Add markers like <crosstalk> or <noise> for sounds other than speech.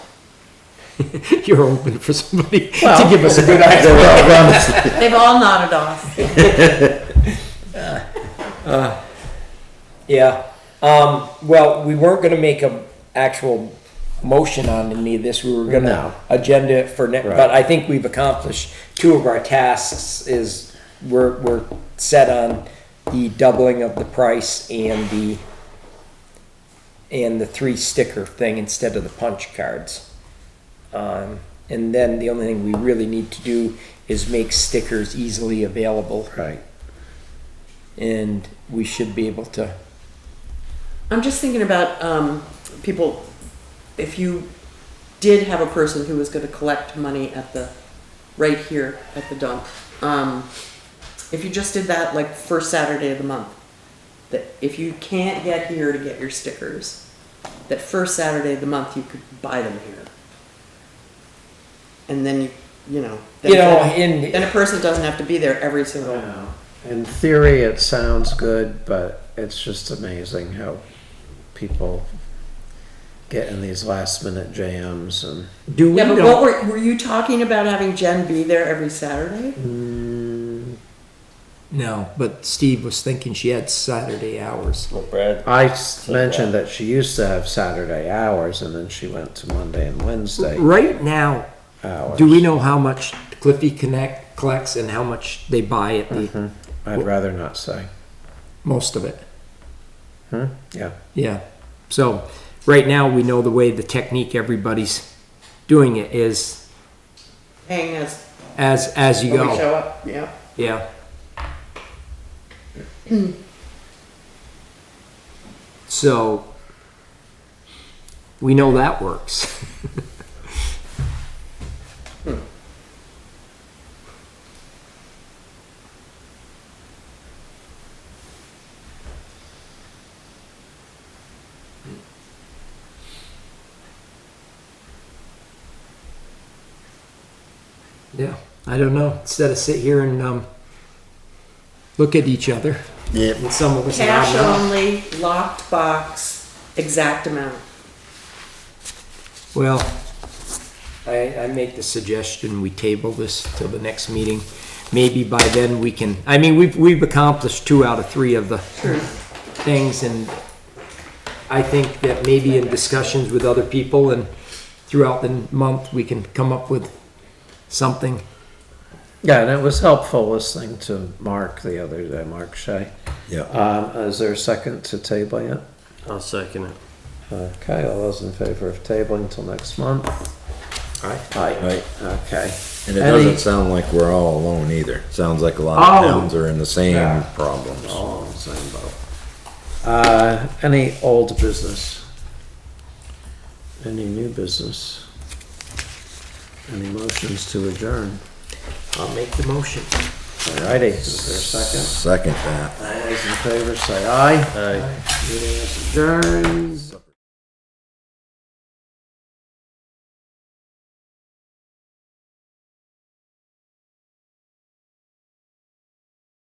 <laughs> you're open for somebody to Well- give us a good idea. <laughs> They've all nodded off. Yeah, um, well, we weren't gonna make a actual motion on any of this, we were No. gonna agenda it for next, Right. but I think we've accomplished two of our tasks is, we're, we're set on the doubling of the price and the, and the three sticker thing instead of the punch cards. Um, and then the only thing we really need to do is make stickers easily available, Right. and we should be able to I'm just thinking about um, people. If you did have a person who was going to collect money at the right here at the dump, um, if you just did that like first Saturday of the month, that if you can't get here to get your stickers, that first Saturday of the month you could buy them here, and then you you know then You know, then- in- then a person doesn't have to be there every single. In theory, it sounds good, but it's just amazing how people get in these last minute jams and. Do Yeah, but what were, were you talking about having Jen be there every Saturday? Mm-hmm. No, but Steve was thinking she had Saturday hours. Brad. I s- mentioned that she used to have Saturday hours and then she went to Monday and Wednesday Right now, hours. do we know how much Cliffy Connect collects and how much they buy at Mm-hmm. the, I'd rather not say. most of it? Hmm? Yeah. Yeah. So, right now, we know the way the technique everybody's doing it is Hang us as, as you when we go. show up, yeah. Yeah. So, we know that works. <laughs> Yeah, I don't know. Instead of sit here and um, look at each other, Yeah. and some of us are Cash not. only, locked box, exact amount. Well, I, I make the suggestion we table this till the next meeting. Maybe by then we can, I mean, we've, we've accomplished two out of three of the things and I think that maybe in discussions with other people and throughout the month, we can come up with something. Yeah, and it was helpful listening to Mark the other day, Mark Shea. Yeah. Um, is there a second to table yet? I'll second it. Okay, all those in favor of tabling until next month? Aye. Aye, Right. okay. And it Any- doesn't sound like we're all alone either. Sounds like a lot Oh. of towns are in the same Yeah. Oh, problems. All in the same boat. Uh, any old business? Any new business? Any motions to adjourn? I'll make the motion. Alrighty, is there a second? Second that. All those in favor say aye. Aye. Meeting is adjourned.